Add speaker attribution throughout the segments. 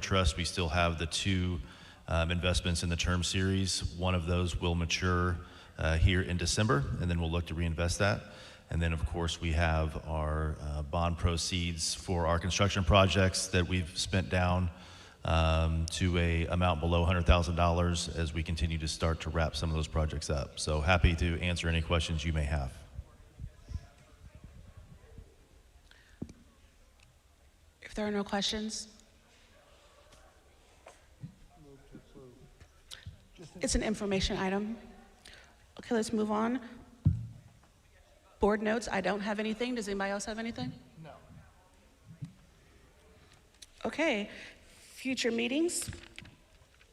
Speaker 1: trust, we still have the two um, investments in the term series. One of those will mature uh, here in December, and then we'll look to reinvest that. And then, of course, we have our uh, bond proceeds for our construction projects that we've spent down um, to a amount below $100,000 as we continue to start to wrap some of those projects up. So happy to answer any questions you may have.
Speaker 2: If there are no questions? It's an information item. Okay, let's move on. Board notes, I don't have anything. Does anybody else have anything? No. Okay, future meetings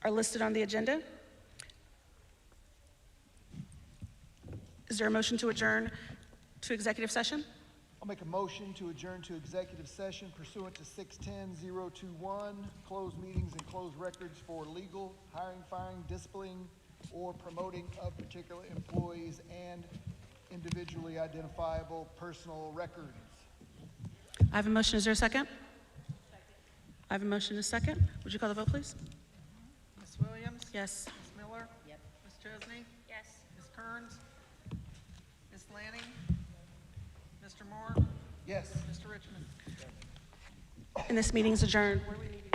Speaker 2: are listed on the agenda. Is there a motion to adjourn to executive session?
Speaker 3: I'll make a motion to adjourn to executive session pursuant to six ten zero two one, close meetings and close records for legal, hiring, firing, disciplining, or promoting of particular employees and individually identifiable personal records.
Speaker 2: I have a motion. Is there a second? I have a motion and a second. Would you call the vote, please?
Speaker 4: Ms. Williams?
Speaker 2: Yes.
Speaker 4: Ms. Miller? Yep. Ms. Chesney? Yes. Ms. Kearns? Ms. Lanning? Mr. Moore?
Speaker 3: Yes.
Speaker 4: Mr. Richmond?
Speaker 2: And this meeting is adjourned.
Speaker 4: Where do we need to